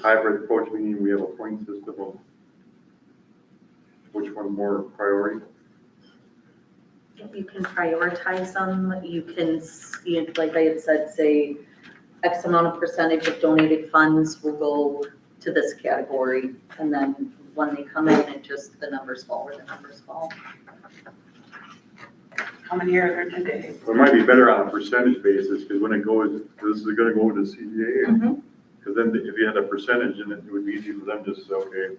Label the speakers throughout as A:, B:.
A: hybrid approach, meaning we have a point system of which one more priority?
B: You can prioritize them, you can, s- you- like I had said, say X amount of percentage of donated funds will go to this category. And then when they come in, it just, the numbers fall where the numbers fall.
C: How many are there today?
A: It might be better on a percentage basis, because when it goes, this is gonna go to
B: Mm-hmm.
A: CDA, because then if you had a percentage in it, it would be easy for them to say, okay,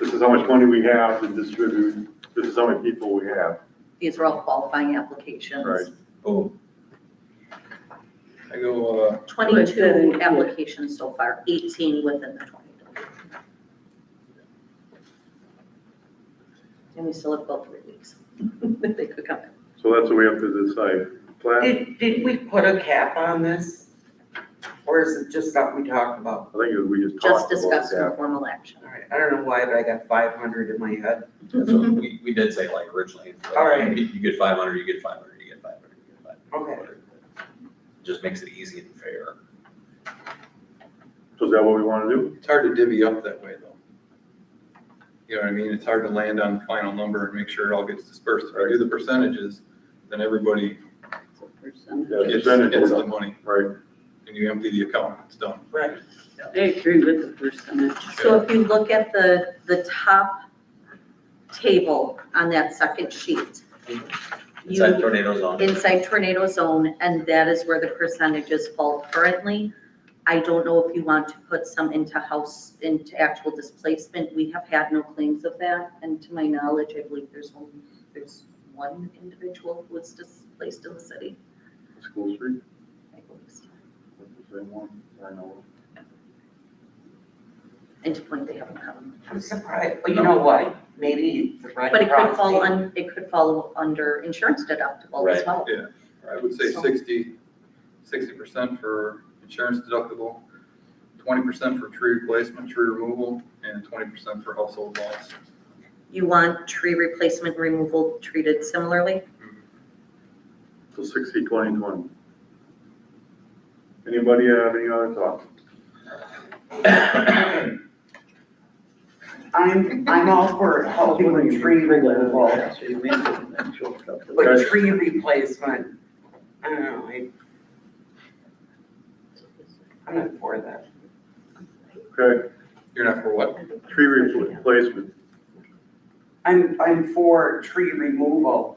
A: this is how much money we have to distribute, this is how many people we have.
B: These are all qualifying applications.
A: Right.
D: Oh.
E: Boom. I go, uh,
B: Twenty-two applications so far, eighteen within the twenty-two. And we still have about three weeks. They could come in.
A: So that's what we have to decide. Flat, I
C: Did, did we put a cap on this? Or is it just something we talked about?
A: think we just
B: just
A: talked about
B: discussed in
A: that.
B: formal action.
C: All right, I don't know why, but I got five hundred in my head.
E: that's what we, we did say like originally. like,
C: Mm-hmm. All right.
E: You you get five hundred, you get five hundred, you get five hundred, you get five
C: Okay.
E: hundred. Just makes it easy and fair.
A: So is that what we want to do?
D: It's hard to divvy up that way though. You know what I mean? It's hard to land on the final number and make sure it all gets dispersed. If I do the percentages, then everybody
A: Yeah,
D: gets,
A: percentage
D: gets
A: is
D: the
A: up,
D: money
A: Right,
D: and you empty the account, it's done.
C: Right.
F: I agree with the percentage.
B: So if you look at the, the top table on that second sheet,
E: Inside
B: you,
E: tornadoes on.
B: inside tornado zone, and that is where the percentages fall currently. I don't know if you want to put some into house, into actual displacement, we have had no claims of that, and to my knowledge, I believe there's only, there's one individual who was displaced in the city.
A: school street,
B: I believe so.
A: that's the same one, I know.
B: And to point, they haven't come.
C: I'm surprised, well, you know what, maybe the Red
B: But it could
C: Cross
B: fall
C: thing.
B: un, it could fall under insurance deductible as
E: Right.
B: well.
D: I would say
C: So-
D: 60 percent for insurance deductible, twenty percent for tree replacement, tree removal, and twenty percent for household loss.
B: You want tree replacement removal treated similarly?
A: So sixty, twenty, twenty. Anybody have any other thoughts?
C: I'm, I'm all for helping with tree removal, but
A: Okay.
C: tree replacement, I don't know, I, I'm not for that.
A: Okay,
D: You're not for what?
A: tree replacement,
C: I'm, I'm for tree removal,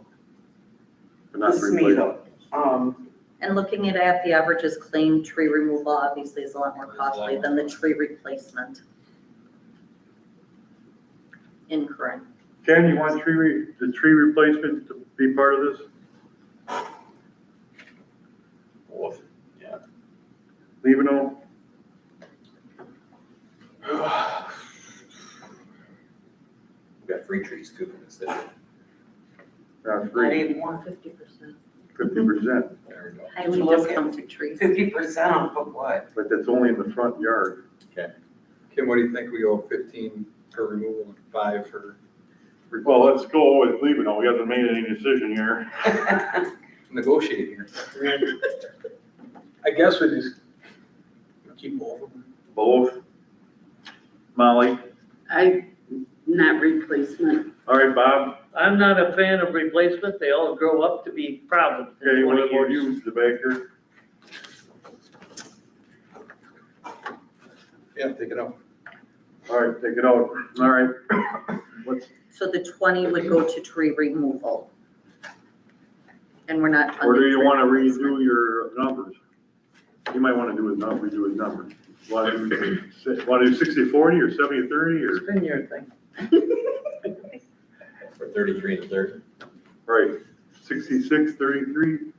A: but
C: the
A: not replacement.
C: SMEDO. Um,
B: And looking at, at the averages claimed, tree removal obviously is a lot more costly than the tree replacement. Incorrect.
A: Ken, you want tree, re- the tree replacement to be part of this?
E: Woof. Yeah.
A: Levino,
E: We've got free trees too in the city.
A: not
C: not
A: free,
C: anymore.
F: Fifty percent.
A: fifty percent,
E: There we go.
B: Highly
C: Look at-
B: discounted trees.
C: Fifty percent off of what?
A: but that's only in the front yard.
D: Kim, what do you think? We go fifteen for removal and five for,
A: Well, let's go with Levino, we haven't made any decision here.
D: negotiate here.
G: I guess we just keep both of them.
A: Both. Molly,
F: I, not replacement.
A: all right, Bob,
G: I'm not a fan of replacement, they all grow up to be problems
A: okay,
G: in
A: what
G: twenty
A: about
G: years.
A: you, the baker?
D: Yeah, take it up.
A: All right, take it out, all right. What's,
B: So the twenty would go to tree removal. And we're not funding.
A: or do you
B: tree
A: wanna
B: replacement.
A: redo your numbers? You might wanna do his number, redo his numbers. Wanna do, si- wanna do sixty, forty, or seventy, thirty, or,
G: Spin your thing.
E: For thirty-three and thirty.
A: right, sixty-six, thirty-three?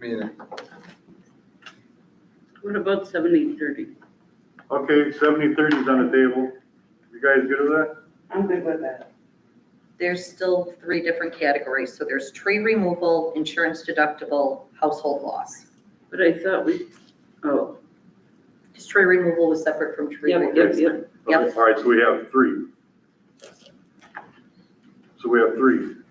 D: I mean,
F: What about seventy, thirty?
A: Okay, seventy, thirty's on the table. You guys good with that?
C: I'm good with that.
B: There's still three different categories, so there's tree removal, insurance deductible, household loss.
F: But I thought we, oh,
B: Because tree removal was separate from tree
F: yep, yep,
B: replacement.
F: yep.
A: Okay, All right, so we have three. So we have three.